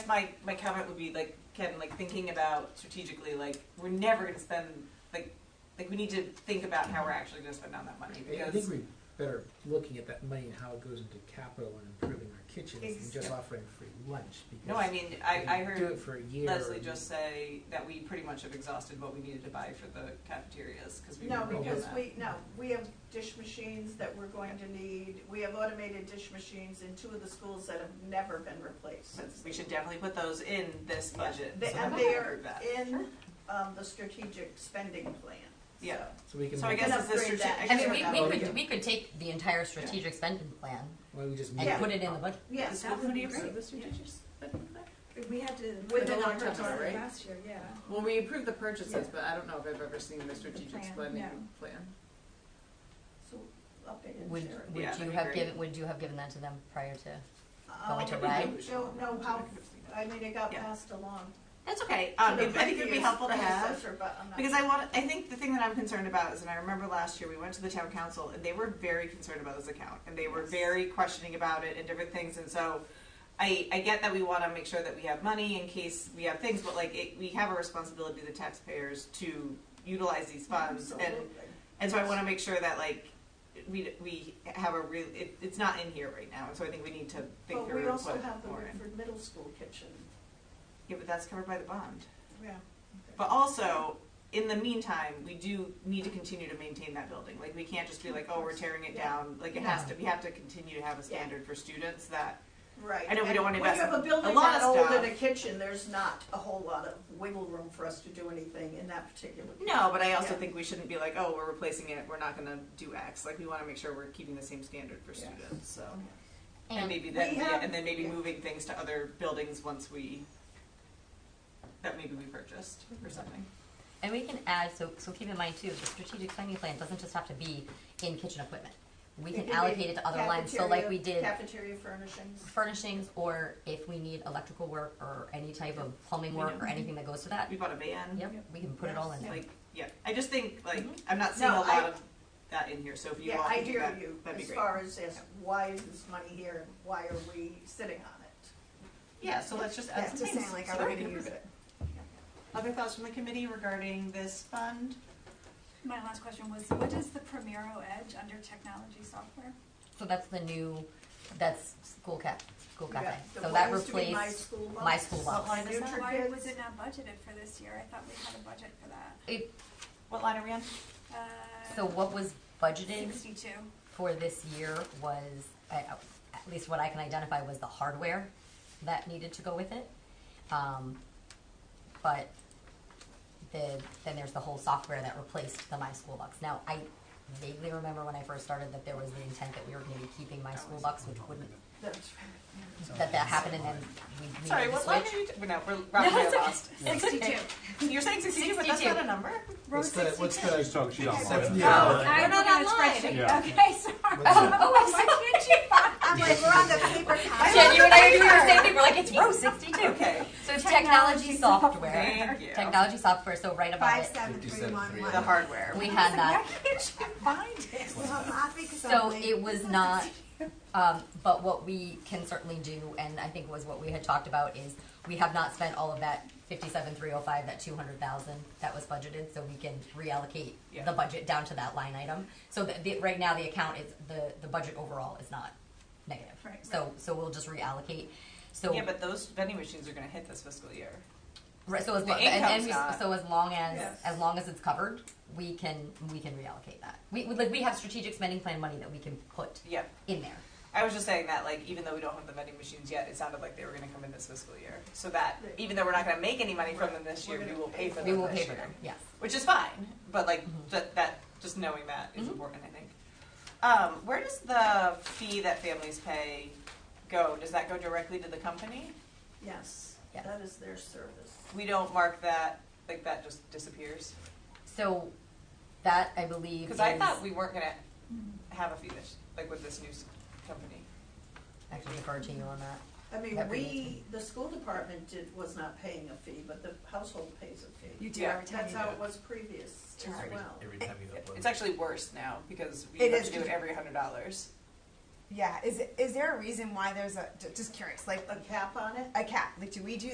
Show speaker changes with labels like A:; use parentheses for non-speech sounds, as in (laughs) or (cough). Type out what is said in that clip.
A: my my comment would be like Ken, like thinking about strategically, like we're never going to spend like like we need to think about how we're actually going to spend on that money
B: I- I think
A: because
B: we're better looking at that money and how it goes into capital and improving our kitchens
A: Ex-
B: than just offering free lunch. Because
A: no, I mean
B: if
A: I,
B: you
A: I
B: do
A: heard
B: it for a year.
A: Leslie just say that we pretty much have exhausted what we needed to buy for the cafeterias because we
C: No,
A: were doing
C: because
A: that.
C: we, no, we have dish machines that we're going to need, we have automated dish machines in two of the schools that have never been replaced.
A: So we should definitely put those in this budget.
C: They-
A: so that
C: And
A: we
C: they
A: can
C: are
A: approve that.
C: in, um, the strategic spending plan.
A: Yeah.
B: so we can.
A: So I
B: make-
A: guess it's the
C: upgrade
A: strategic.
C: that.
D: I mean, we,
B: Oh,
D: we
B: yeah.
D: could, we could take the entire strategic spending plan
B: why we just
D: and
C: Yeah.
D: put it in the budget.
C: Yes.
A: That would be great.
E: We had to.
C: With the
E: put
C: long-term
E: purchases
C: plan, right?
E: Last year, yeah.
F: Well, we approved the purchases,
C: Yeah.
F: but I don't know if I've ever seen the strategic
E: plan,
F: spending
E: no.
F: plan.
C: So updated.
D: Would,
C: share.
D: would
A: Yeah,
D: you
A: that'd be
D: have
A: great.
D: given, would you have given that to them prior to?
C: Um,
D: to ride?
C: I Don't know how, I mean, it got
A: Yeah.
C: passed along.
A: That's okay.
C: to
A: Um,
C: the
A: it- I think it'd be
C: previous
A: helpful to have.
C: predecessor, But I'm not.
A: Because I want, I think the thing that I'm concerned about is, and I remember last year we went to the town council and they were very concerned about this account and they were
C: Yes.
A: very questioning about it and different things. And so I, I get that we want to make sure that we have money in case we have things, but like it, we have a responsibility to taxpayers to utilize these funds. And,
C: Absolutely.
A: and so I want to make sure that like we, we have a real, it, it's not in here right now. And so I think we need to think
C: But
A: through
C: we
A: and
C: also
A: put
C: have the
A: more in.
C: Woodford Middle School kitchen,
A: Yeah, but that's covered by the bond.
C: yeah.
A: But also, in the meantime, we do need to continue to maintain that building. Like, we can't just be like, oh, we're tearing it
C: Yeah.
A: down. Like, it has to, we have to continue to have a standard for students that,
C: Right.
A: I know we
C: And
A: don't wanna invest
C: When you have a
A: a
C: building
A: lot
C: that
A: of
C: old
A: stuff.
C: in a kitchen, there's not a whole lot of wiggle room for us to do anything in that particular.
A: no, but I also
C: Yeah.
A: think we shouldn't be like, oh, we're replacing it, we're not gonna do X. Like, we wanna make sure we're keeping the same standard for
C: Yeah.
A: students, so. And
D: And
A: maybe then,
C: We
A: yeah,
C: have-
A: and then maybe
C: yeah.
A: moving things to other buildings once we, that maybe we purchased
C: Mm-hmm.
A: or something.
D: And we can add, so, so keep in mind too, the strategic spending plan doesn't just have to be in kitchen equipment. We
C: It
D: can
C: could be
D: allocate it to other lines, so like we
C: cafeteria-
D: did
C: Cafeteria furnishings.
D: furnishings, or if we need electrical work, or any type of plumbing work, or anything that goes to that.
A: We bought a van.
C: Mm-hmm.
D: Yep, we can put it all in there.
A: Like, yeah, I just think, like, I'm not seeing a
C: No,
A: lot
C: I-
A: of that in here, so if you
C: Mm-hmm. Yeah,
A: all
C: I
A: can do
C: hear
A: that,
C: you,
A: that'd be
C: as
A: great.
C: far as, as, why is this money here, and why are we sitting on it?
A: Yeah, so let's just add
C: Yeah,
A: some
C: just
A: things.
C: saying, like,
A: so
C: are
A: that
C: we
A: can
C: gonna
A: approve
C: use
A: it? Other thoughts from the committee regarding this fund?
E: My last question was, what is the Primero Edge under technology software?
D: So that's the new, that's school cap, school cafe.
C: Yeah, the
D: Oh, So
C: what
D: that
C: used to be my
D: replaced,
C: school
D: my
C: bus.
D: school bus.
A: Line is that?
C: Future
E: Why was
C: kids.
E: it not budgeted for this year? I thought we had a budget for that.
D: it-
A: What line are we on?
E: Uh,
D: so what was budgeted
E: Sixty-two.
D: for this year was, I- at least what I can identify was the hardware that needed to go with it. Um, But the, then there's the whole software that replaced the My School Bucks. Now, I vaguely remember when I first started that there was the intent that we were maybe keeping My School Bucks, which wouldn't,
C: That's
D: that that happened and then we we made the switch.
A: Sorry, what line are you, t- no, we're rapidly
D: it's
A: at lost.
E: Sixty-two.
A: You're saying sixty-two, but that's
D: 62.
A: not a number?
E: Road
B: What's the,
E: sixty-two.
B: what's the,
G: talking, she's
E: Okay,
G: online.
B: Yeah.
E: Oh, I'm
A: We're not
E: looking at a
A: online.
E: spreadsheet.
G: Yeah.
E: Okay, sorry. Oh,
B: What's that?
E: Why can't you?
C: I'm like, we're on the
D: (laughs)
C: paper copy.
D: Jen, you and I are doing the same thing. We're like, it's row 62.
A: Okay,
D: So technology
E: Technology
D: software.
A: Thank you.
D: Technology software, so right above
C: Five,
D: it,
C: seven, three, one,
A: the
C: one.
A: hardware.
D: we had
E: Why
D: that.
E: can't you find it?
C: Well, I'm happy 'cause I'm
D: So
C: late.
D: it was not, um, but what we can certainly do, and I think was what we had talked about, is we have not spent all of that fifty-seven, three oh five, that two hundred thousand that was budgeted, so we can reallocate
A: Yeah.
D: the budget down to that line item. So that, the, right now, the account is, the, the budget overall is not negative.
C: Right,
D: So, so we'll just reallocate, so.
A: Yeah, but those vending machines are gonna hit this fiscal year.
D: Right, so as
A: The
D: long, and, and
A: income's
D: we,
A: not-
D: so as long as
C: Yes.
D: as long as it's covered, we can we can reallocate that. We we- like we have strategic spending plan money that we can put
A: Yep,
D: in there.
A: I was just saying that, like, even though we don't have the vending machines yet, it sounded like they were gonna come in this fiscal year. So that, even though we're not gonna make any money from them this year, we will pay for them this
D: We
A: year.
D: will pay for them. Yes.
A: which is fine. But like
C: Mm-hmm.
A: that, that just knowing that is important, I think. Um, where does the fee that families pay go? Does that go directly to the company?
C: Yes,
D: Yes.
C: that is their service.
A: We don't mark that like that just disappears
D: So that I believe
A: because I
D: is-
A: thought we weren't gonna
C: Mm-hmm.
A: have a fee this like with this new s- company.
D: I can defer to you on that.
C: I mean,
D: Every
C: we, the school department did, was not paying a fee, but the household pays a fee.
E: You
A: do Yeah. every
C: That's how it was previous as
G: Every-
C: well.
G: Every time you
A: It-
G: upload.
A: It's actually worse now because we
C: It
A: have
C: is.
A: to do it every hundred dollars.
G: Yeah, is, it- is there a reason why there's a, j- just curious, like
C: a cap on it?
G: a cap, like do we do